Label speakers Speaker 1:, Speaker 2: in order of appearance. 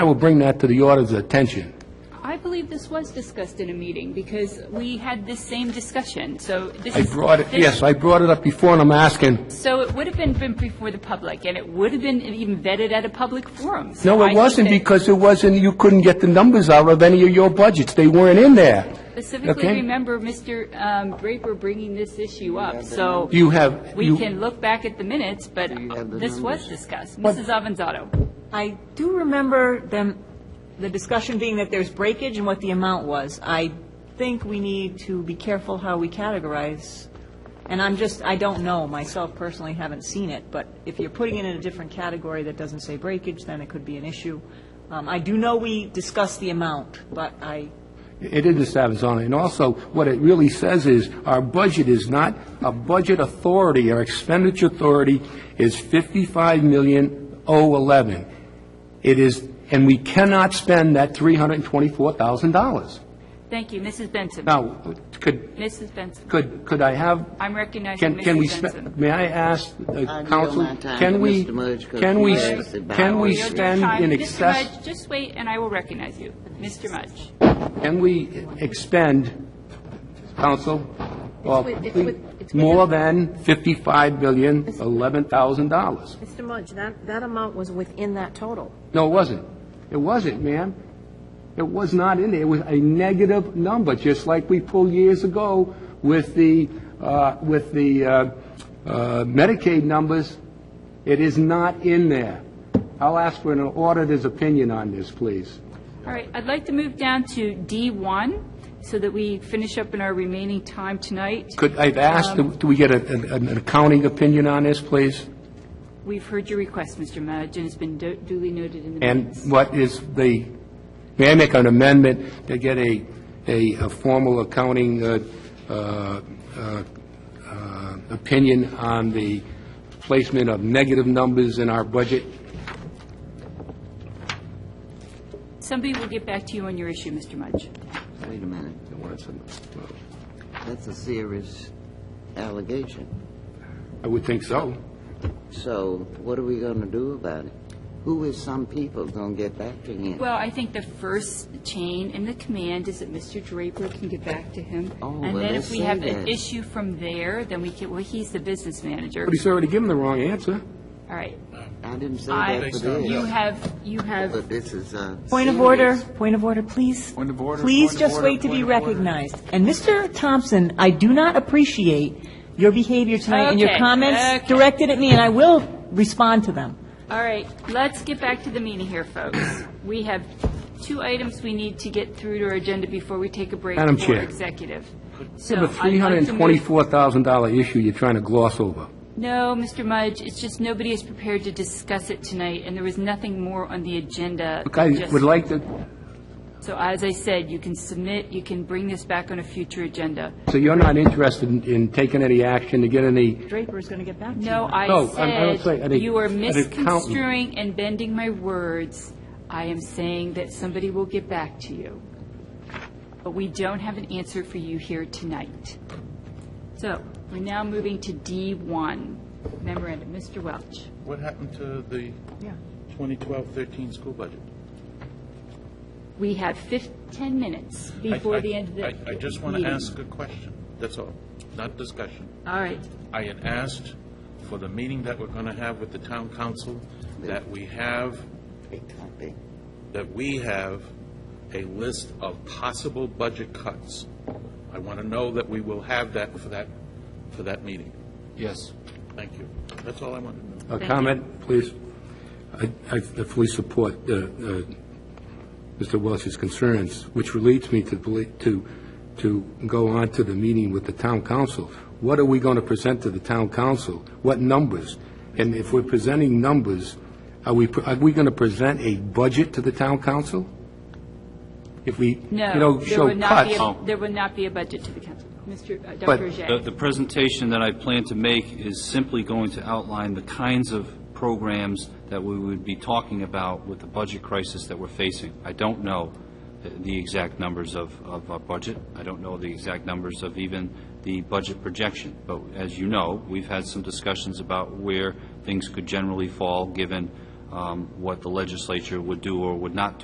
Speaker 1: I will bring that to the auditor's attention.
Speaker 2: I believe this was discussed in a meeting, because we had this same discussion, so this
Speaker 1: I
Speaker 2: is...
Speaker 1: brought it,
Speaker 2: this-
Speaker 1: yes, I brought it up before, and I'm asking,
Speaker 2: So it would have been been before the public, and it would have been even vetted at a public forum. So
Speaker 1: no,
Speaker 2: I
Speaker 1: it
Speaker 2: think
Speaker 1: wasn't,
Speaker 2: that
Speaker 1: because it wasn't, you couldn't get the numbers out of any of your budgets. They weren't in there.
Speaker 2: Specifically
Speaker 1: okay.
Speaker 2: remember Mr. um, Draper bringing this issue up, so
Speaker 1: You have,
Speaker 2: we
Speaker 1: you,
Speaker 2: can look back at the minutes, but this was discussed. Mrs. Avanzato?
Speaker 3: I do remember them, the discussion being that there's breakage and what the amount was. I think we need to be careful how we categorize, and I'm just, I don't know, myself personally haven't seen it, but if you're putting it in a different category that doesn't say breakage, then it could be an issue. Um, I do know we discussed the amount, but I,
Speaker 1: it is the Savazon, and also, what it really says is, our budget is not a budget authority, our expenditure authority is fifty-five million oh eleven. It is, and we cannot spend that three hundred and twenty-four thousand dollars.
Speaker 2: Thank you, Mrs. Benson.
Speaker 1: Now, could,
Speaker 2: Mrs. Benson,
Speaker 1: could, could I have
Speaker 2: I'm recognizing
Speaker 1: Can, can we,
Speaker 2: Mrs.
Speaker 1: spe-
Speaker 2: Benson.
Speaker 1: may I ask the
Speaker 4: yield
Speaker 1: council,
Speaker 4: my time
Speaker 1: can
Speaker 4: to
Speaker 1: we,
Speaker 4: Mr. Mudge 'cause
Speaker 1: can
Speaker 4: he
Speaker 1: we,
Speaker 4: asked
Speaker 1: sp-
Speaker 4: about
Speaker 1: can we
Speaker 4: it.
Speaker 1: spend in
Speaker 2: Mr.
Speaker 1: excess,
Speaker 2: Mudge, just wait, and I will recognize you. Mr. Mudge.
Speaker 1: can we expend, council, well,
Speaker 5: with- it's with- it's with-
Speaker 1: more than fifty-five million, eleven thousand dollars?
Speaker 5: Mr. Mudge, that, that amount was within that total.
Speaker 1: No, it wasn't. It wasn't, ma'am. It was not in there. It was a negative number, just like we pulled years ago with the, uh, with the uh, uh, Medicaid numbers. It is not in there. I'll ask for an auditor's opinion on this, please.
Speaker 2: All right, I'd like to move down to D1, so that we finish up in our remaining time tonight.
Speaker 1: Could, I've asked, do we get a- an an accounting opinion on this, please?
Speaker 2: We've heard your request, Mr. Mudge, and it's been du- duly noted in the
Speaker 1: And
Speaker 2: minutes.
Speaker 1: what is the, may I make an amendment to get a, a a formal accounting uh, uh, uh, uh, opinion on the placement of negative numbers in our budget?
Speaker 2: Somebody will get back to you on your issue, Mr. Mudge.
Speaker 4: Wait a minute, that's a serious allegation.
Speaker 1: I would think so.
Speaker 4: So what are we gonna do about it? Who is some people gonna get back to him?
Speaker 2: Well, I think the first chain in the command is that Mr. Draper can get back to him.
Speaker 4: Oh,
Speaker 2: And
Speaker 4: well,
Speaker 2: then
Speaker 4: they
Speaker 2: if we
Speaker 4: say
Speaker 2: have an
Speaker 4: that.
Speaker 2: issue from there, then we can, well, he's the business manager.
Speaker 1: But he's already given the wrong answer.
Speaker 2: All right.
Speaker 4: I didn't say
Speaker 2: I-
Speaker 4: that for
Speaker 2: You
Speaker 4: this,
Speaker 2: have, you have,
Speaker 4: but this is a
Speaker 3: point of order,
Speaker 4: serious-
Speaker 3: point of order, please.
Speaker 6: Point of order,
Speaker 3: Please
Speaker 6: point of
Speaker 3: just
Speaker 6: order,
Speaker 3: wait to be
Speaker 6: point of order.
Speaker 3: recognized. And Mr. Thompson, I do not appreciate your behavior tonight and your
Speaker 2: Okay,
Speaker 3: comments
Speaker 2: okay.
Speaker 3: directed at me, and I will respond to them.
Speaker 2: all right, let's get back to the meeting here, folks. We have two items we need to get through to our agenda before we take a break
Speaker 1: Madam
Speaker 2: for
Speaker 1: Chair.
Speaker 2: executive.
Speaker 1: You
Speaker 2: So
Speaker 1: have a
Speaker 2: I'd like to move-
Speaker 1: $324,000 issue you're trying to gloss over.
Speaker 2: No, Mr. Mudge, it's just nobody is prepared to discuss it tonight, and there was nothing more on the agenda.
Speaker 1: Look, I
Speaker 2: just-
Speaker 1: would like to,
Speaker 2: So as I said, you can submit, you can bring this back on a future agenda.
Speaker 1: so you're not interested in- in taking any action to get any,
Speaker 3: Draper is going to get back to you.
Speaker 2: No,
Speaker 1: No, I'm- I
Speaker 2: I
Speaker 1: don't say- I
Speaker 2: said,
Speaker 1: think-
Speaker 2: you are
Speaker 1: I think counting.
Speaker 2: misconstruing and bending my words. I am saying that somebody will get back to you. But we don't have an answer for you here tonight. So we're now moving to D1 memorandum. Mr. Welch.
Speaker 6: What happened to the 2012-13 school budget?
Speaker 2: We have fif, 10 minutes
Speaker 6: I-
Speaker 2: before
Speaker 6: I-
Speaker 2: the end of the
Speaker 6: I-
Speaker 2: meeting.
Speaker 6: I just want to ask a question, that's all, not discussion.
Speaker 2: All right.
Speaker 6: I had asked for the meeting that we're going to have with the town council, that we have,
Speaker 4: Big copy.
Speaker 6: that we have a list of possible budget cuts. I want to know that we will have that for that, for that meeting.
Speaker 7: Yes.
Speaker 6: Thank you. That's all I wanted to know.
Speaker 1: a comment, please? I I fully support uh, uh, Mr. Welch's concerns, which leads me to, belie- to, to go on to the meeting with the town council. What are we going to present to the town council? What numbers? And if we're presenting numbers, are we, pre- are we going to present a budget to the town council? If we, you
Speaker 2: No,
Speaker 1: know,
Speaker 2: there
Speaker 1: show
Speaker 2: would not be,
Speaker 1: cuts?
Speaker 2: a- there would not be a budget to the council. Mr. uh,
Speaker 1: But-
Speaker 2: Dr. Ajay.
Speaker 7: The the presentation that I plan to make is simply going to outline the kinds of programs that we would be talking about with the budget crisis that we're facing. I don't know the- the exact numbers of of our budget. I don't know the exact numbers of even the budget projection. But as you know, we've had some discussions about where things could generally fall, given um, what the legislature would do or would not do.